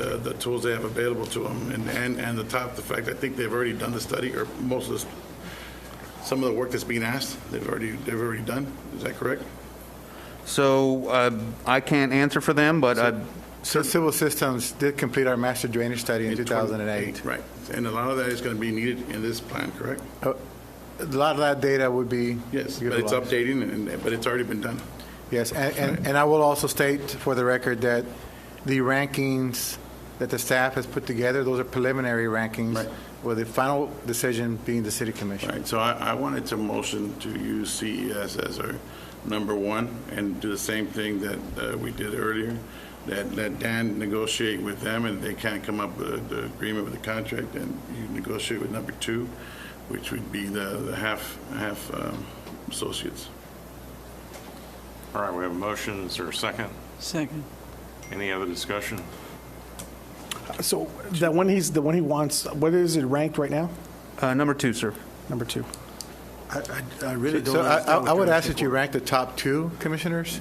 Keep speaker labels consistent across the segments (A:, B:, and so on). A: the tools they have available to them, and, and, and the top, the fact, I think they've already done the study, or most of this, some of the work that's being asked, they've already, they've already done, is that correct?
B: So uh, I can't answer for them, but I,
C: So Civil Systems did complete our master drainage study in 2008.
A: Right, and a lot of that is gonna be needed in this plan, correct?
C: A lot of that data would be
A: Yes, but it's
C: utilized.
A: updating, and, but it's already been done.
C: Yes, and- and, and I will also state for the record that the rankings that the staff has put together, those are preliminary rankings,
A: Right.
C: with the final decision being the city
A: All
C: commission.
A: right, so I, I wanted to motion to use CES as our number one and do the same thing that uh, we did earlier, that let Dan negotiate with them and they can't come up with the agreement with the contract and you negotiate with number two, which would be the, the half, half um, associates.
D: All right, we have a motion. Is there a second?
E: Second.
D: Any other discussion?
F: So that one he's, the one he wants, what is it ranked right now?
B: uh, number two, sir.
F: Number two.
G: I really don't
C: So I, I
G: understand what
C: I would
G: you're
C: ask
G: asking
C: that you
G: for.
C: rank the top two commissioners,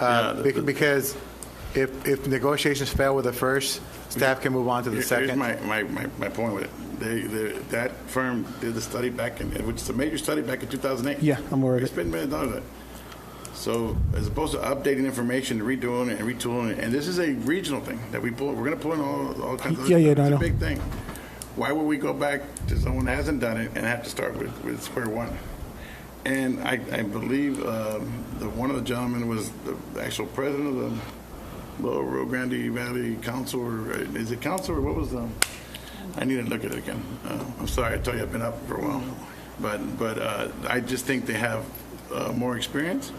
A: Yeah,
C: uh,
A: the-
C: bec-
A: the-
C: because if, if negotiations fail with the first, staff can move on to the
A: Here's
C: second.
A: my, my, my, my point with it. They, they, that firm did the study back in, which is a major study back in 2008.
F: Yeah, I'm aware of
A: We
F: it.
A: spent millions of dollars on it. So as opposed to updating information, redoing it and retooling it, and this is a regional thing that we pull, we're gonna pull in all, all kinds of.
F: Yeah, yeah, no, I
A: It's a
F: know.
A: big thing. Why would we go back to someone that hasn't done it and have to start with, with square one? And I, I believe, um, the, one of the gentlemen was the actual president of the Little Rio Grande Valley Council, or uh, is it council, or what was the? I need to look at it again. Uh, I'm sorry, I tell you, I've been up for a while. But, but uh, I just think they have uh, more experience.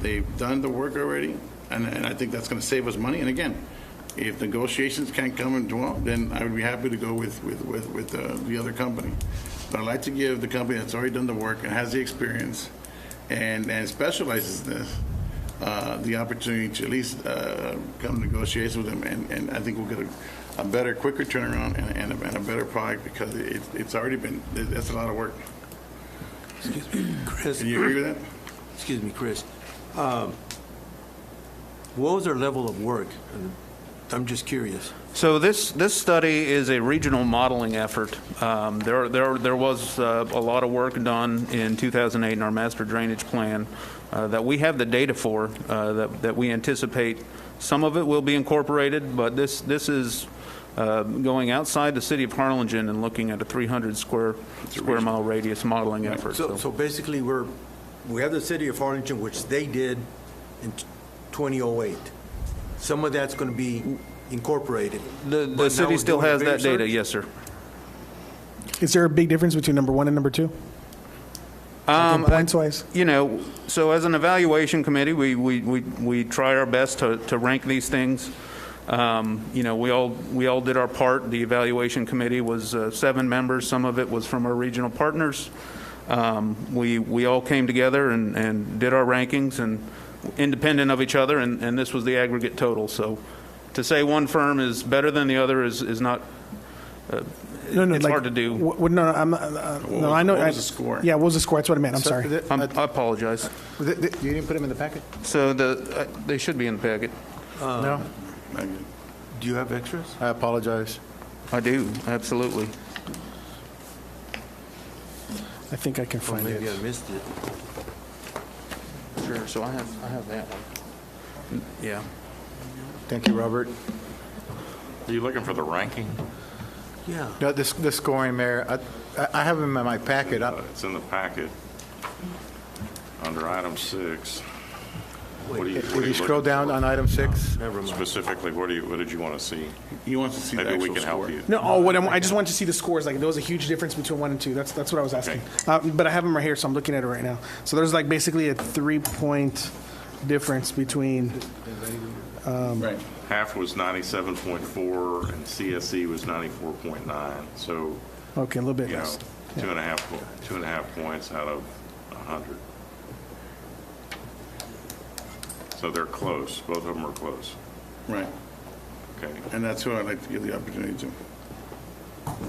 A: They've done the work already, and, and I think that's going to save us money. And again, if negotiations can't come and dwell, then I would be happy to go with, with, with, with uh, the other company. But I'd like to give the company that's already done the work and has the experience and, and specializes in this, uh, the opportunity to at least uh, come negotiate with them, and, and I think we'll get a, a better, quicker turnaround and, and a, and a better product because it, it's already been, that's a lot of work.
G: Chris,
A: Do you agree with that?
G: excuse me, Chris. Um, What was their level of work? I'm just curious.
B: So this, this study is a regional modeling effort. Um, There, there, there was uh, a lot of work done in 2008 in our master drainage plan uh, that we have the data for, uh, that, that we anticipate. Some of it will be incorporated, but this, this is uh, going outside the city of Harlingen and looking at a 300 square, square mile radius modeling effort.
G: So, so basically, we're, we have the city of Harlingen, which they did in 2008. Some of that's going to be incorporated.
B: The,
G: But now
B: the city
G: we're
B: still
G: doing a
B: has that
G: bigger
B: data,
G: search?
B: yes, sir.
F: Is there a big difference between number one and number two?
B: Um, I-
F: Points wise?
B: you know, so as an evaluation committee, we, we, we, we try our best to, to rank these things. Um, you know, we all, we all did our part. The evaluation committee was uh, seven members. Some of it was from our regional partners. Um, we, we all came together and, and did our rankings and independent of each other, and, and this was the aggregate total. So to say one firm is better than the other is, is not,
F: No, no,
B: It's
F: like,
B: hard to do.
F: wh- wh- No, no, I'm, not- uh,
A: What
F: no,
A: was-
F: I know.
A: what
F: I-
A: was the score?
F: Yeah, what was the score? That's what I meant. I'm
C: So
F: sorry.
C: the-
B: I'm- I apologize.
C: the- the- You didn't put them in the packet?
B: So the, uh, they should be in the packet.
C: No?
A: Like,
G: Do you have extras?
C: I apologize.
B: I do, absolutely.
F: I think I can
G: Or
F: find it.
G: maybe I missed it.
B: Sure, so I have, I have that one. Yeah.
C: Thank you, Robert.
D: Are you looking for the ranking?
G: Yeah.
C: No, this, the scoring, Mayor, I- I, I have them in my packet. I-
D: Uh, It's in the packet under item six. What do you- what
C: If
D: are
C: you
D: you
C: scroll
D: looking
C: down
D: for?
C: on item six,
G: Never mind.
D: Specifically, what do you, what did you want to see?
A: He wants to see the
D: Maybe we
A: actual
D: can help
A: score.
D: you.
F: No, oh, what I'm, I just wanted to see the scores. Like there was a huge difference between one and two. That's that's what I was asking. Uh, but I have them right here, so I'm looking at it right now. So there's like basically a three point difference between.
A: Right.
D: Half was 97.4 and CSE was 94.9. So,
F: Okay, a little bit
D: you know,
F: less.
D: two and a half, po- two and a half points out of 100. So they're close. Both of them are close.
A: Right,
D: Okay.
A: and that's who I'd like to give the opportunity to.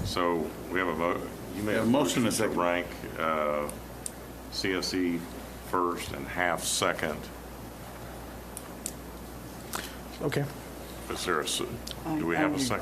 D: So we have a vote. You may
A: We have a motion and a second.
D: To rank uh, CSE first and half second.
F: Okay.
D: Is there a, s-
E: I-
D: do we
E: I
D: have a
E: agree.
D: second?